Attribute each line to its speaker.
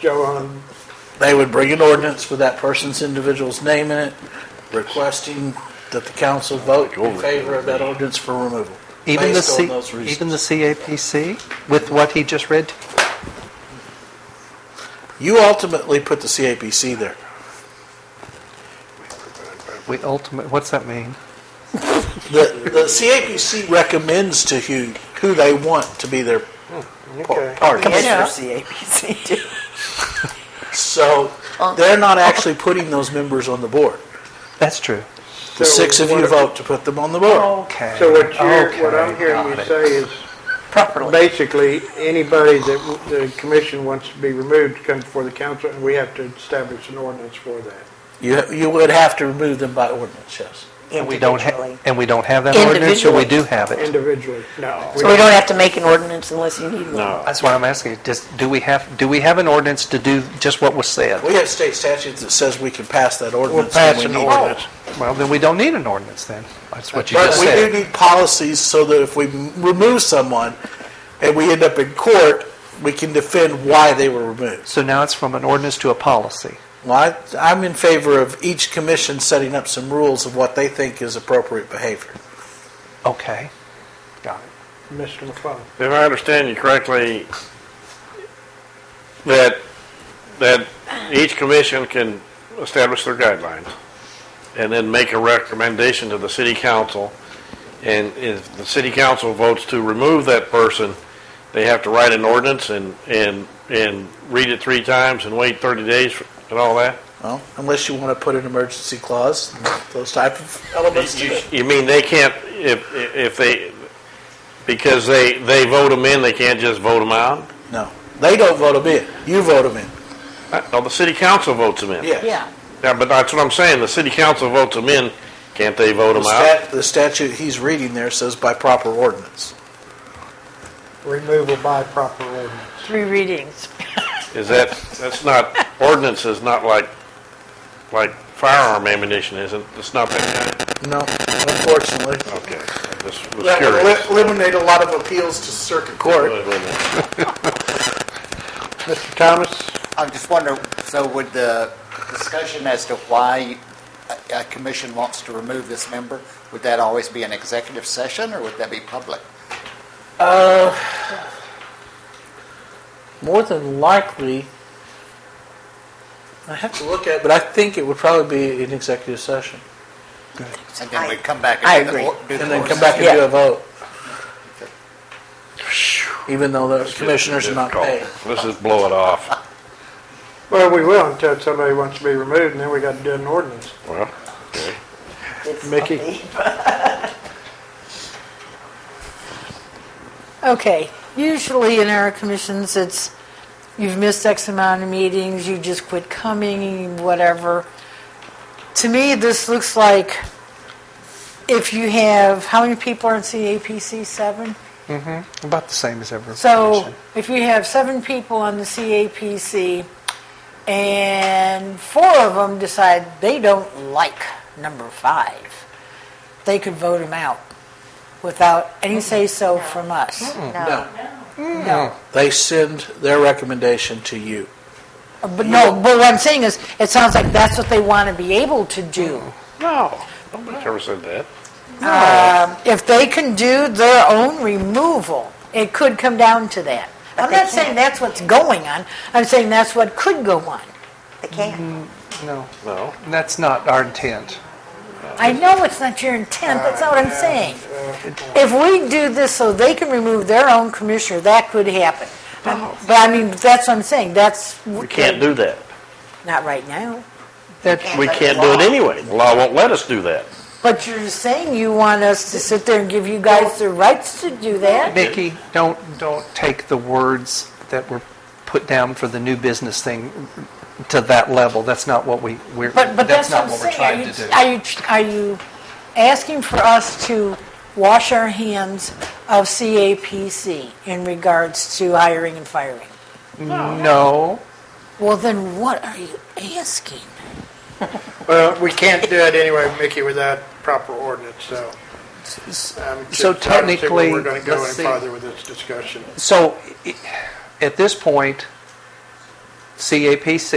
Speaker 1: go on.
Speaker 2: They would bring an ordinance with that person's individual's name in it, requesting that the council vote in favor of that ordinance for removal.
Speaker 3: Even the
Speaker 2: Based on
Speaker 3: C,
Speaker 2: those reasons.
Speaker 3: even the CAPC with what he just read? to you?
Speaker 2: You ultimately put the CAPC there.
Speaker 3: We ultimate, what's that mean?
Speaker 2: The, the CAPC recommends to who, who they want to be their par-
Speaker 1: Okay.
Speaker 2: party.
Speaker 4: Yes, for CAPC too.
Speaker 2: So they're not actually putting those members on the board.
Speaker 3: That's true.
Speaker 1: So
Speaker 2: The six of you
Speaker 1: what-
Speaker 2: vote to put them on the board.
Speaker 3: Okay.
Speaker 1: So what you're, what I'm
Speaker 3: Okay,
Speaker 1: hearing you
Speaker 3: got it.
Speaker 1: say is
Speaker 4: Properly.
Speaker 1: basically anybody that w- the commission wants to be removed comes before the council and we have to establish an ordinance for that.
Speaker 2: You, you would have to remove them by ordinance, yes.
Speaker 3: And we don't
Speaker 4: Individually.
Speaker 3: have, and we don't have that ordinance, or we
Speaker 4: Individually.
Speaker 3: do have it?
Speaker 1: Individually, no.
Speaker 4: So we don't have to make an ordinance unless you need one.
Speaker 2: uh,
Speaker 3: That's why I'm asking, just, do we have, do we have an ordinance to do just what was said?
Speaker 2: We have state statutes that says we can pass that
Speaker 1: We'll
Speaker 2: ordinance. when
Speaker 1: pass
Speaker 2: we
Speaker 1: an
Speaker 2: need it.
Speaker 1: ordinance.
Speaker 3: Well, then we don't need an ordinance then. That's what you
Speaker 2: But
Speaker 3: just
Speaker 2: we do
Speaker 3: said.
Speaker 2: need policies so that if we m- remove someone and we end up in court, we can defend why they were removed.
Speaker 3: So now it's from an ordinance to a policy.
Speaker 2: Well, I, I'm in favor of each commission setting up some rules of what they think is appropriate behavior.
Speaker 3: Okay. Got it.
Speaker 1: Mr. McClung.
Speaker 5: If I understand you correctly, that, that each commission can establish their guidelines and then make a recommendation to the city council. And if the city council votes to remove that person, they have to write an ordinance and, and, and read it three times and wait 30 days and all that?
Speaker 2: Well, unless you want to put an emergency clause, those type of elements. to
Speaker 5: You-
Speaker 2: it.
Speaker 5: You mean they can't, if, if they, because they, they vote them in, they can't just vote them out?
Speaker 2: No, they don't vote them in. You vote them in.
Speaker 5: Uh, No, the city council votes them in.
Speaker 2: Yes.
Speaker 4: Yeah.
Speaker 5: Yeah, but that's what I'm saying, the city council votes them in, can't they vote
Speaker 2: The,
Speaker 5: them out?
Speaker 2: stat, the statute he's reading there says by proper ordinance.
Speaker 1: Removal by proper ordinance.
Speaker 4: Three readings.
Speaker 5: Is that, that's not, ordinance is not like, like firearm ammunition, isn't, it's not that
Speaker 2: No, unfortunately.
Speaker 5: kind, okay, I just was
Speaker 2: That would
Speaker 5: curious.
Speaker 2: li- eliminate a lot of appeals to circuit court.
Speaker 5: Wait a minute.
Speaker 1: Mr. Thomas?
Speaker 6: I'm just wondering, so would the discussion as to why a a commission wants to remove this member, would that always be an executive session, or would that be public?
Speaker 2: More than likely, I have to look at, it, but I think it would probably be an executive session.
Speaker 6: And then we come back
Speaker 4: I
Speaker 6: and do the
Speaker 4: agree.
Speaker 6: or- do the
Speaker 2: And then come
Speaker 6: ordinance?
Speaker 2: back and do
Speaker 4: Yeah.
Speaker 2: a vote. Even though the commissioners are not paid.
Speaker 5: Let's just blow it off.
Speaker 1: Well, we will until somebody wants to be removed and then we got to do an ordinance.
Speaker 5: Well, okay.
Speaker 4: It's
Speaker 1: Mickey.
Speaker 4: ugly. Okay,
Speaker 7: Usually in our commissions, it's, you've missed X amount of meetings, you just quit coming, whatever. To me, this looks like if you have, how many people are in CAPC? Seven?
Speaker 3: About the same as ever.
Speaker 7: So if you have seven people on the CAPC and four of them decide they don't like number five, they could vote him out without any say-so from us.
Speaker 2: No,
Speaker 7: No.
Speaker 2: they send their recommendation to you.
Speaker 7: Uh, But no, but what I'm saying is, it sounds like that's what they want to be able to do.
Speaker 5: No, nobody's ever said that.
Speaker 7: If they can do their own removal, it could come down to that. I'm
Speaker 4: they
Speaker 7: not saying that's what's going on, I'm saying that's what could go on.
Speaker 4: they can't.
Speaker 3: No,
Speaker 5: No,
Speaker 3: that's not our intent.
Speaker 7: I know it's not your intent, that's not what I'm saying. If we do this so they can remove their own commissioner, that could happen. Um, But I mean, that's what I'm saying, that's,
Speaker 5: we can't do that.
Speaker 7: not right now.
Speaker 3: That,
Speaker 5: We can't do it anyway. The Law won't let us do that.
Speaker 7: But you're saying you want us to sit there and give you guys the rights to do that?
Speaker 3: Nikki, don't, don't take the words that were put down for the new business thing to that level. That's not what we, we're,
Speaker 7: But, but
Speaker 3: that's
Speaker 7: that's
Speaker 3: not what
Speaker 7: what
Speaker 3: we're
Speaker 7: I'm saying.
Speaker 3: trying to do.
Speaker 7: Are you, are you, are you asking for us to wash our hands of CAPC in regards to hiring and firing?
Speaker 3: No,
Speaker 7: Well, then what are you asking?
Speaker 1: Well, we can't do it anyway, Mickey, without proper ordinance, so. I'm just-
Speaker 3: so
Speaker 1: I don't see where
Speaker 3: technically,
Speaker 1: We're going to go
Speaker 3: let's
Speaker 1: any
Speaker 3: see.
Speaker 1: farther with this discussion.
Speaker 3: so i- at this point, CAPC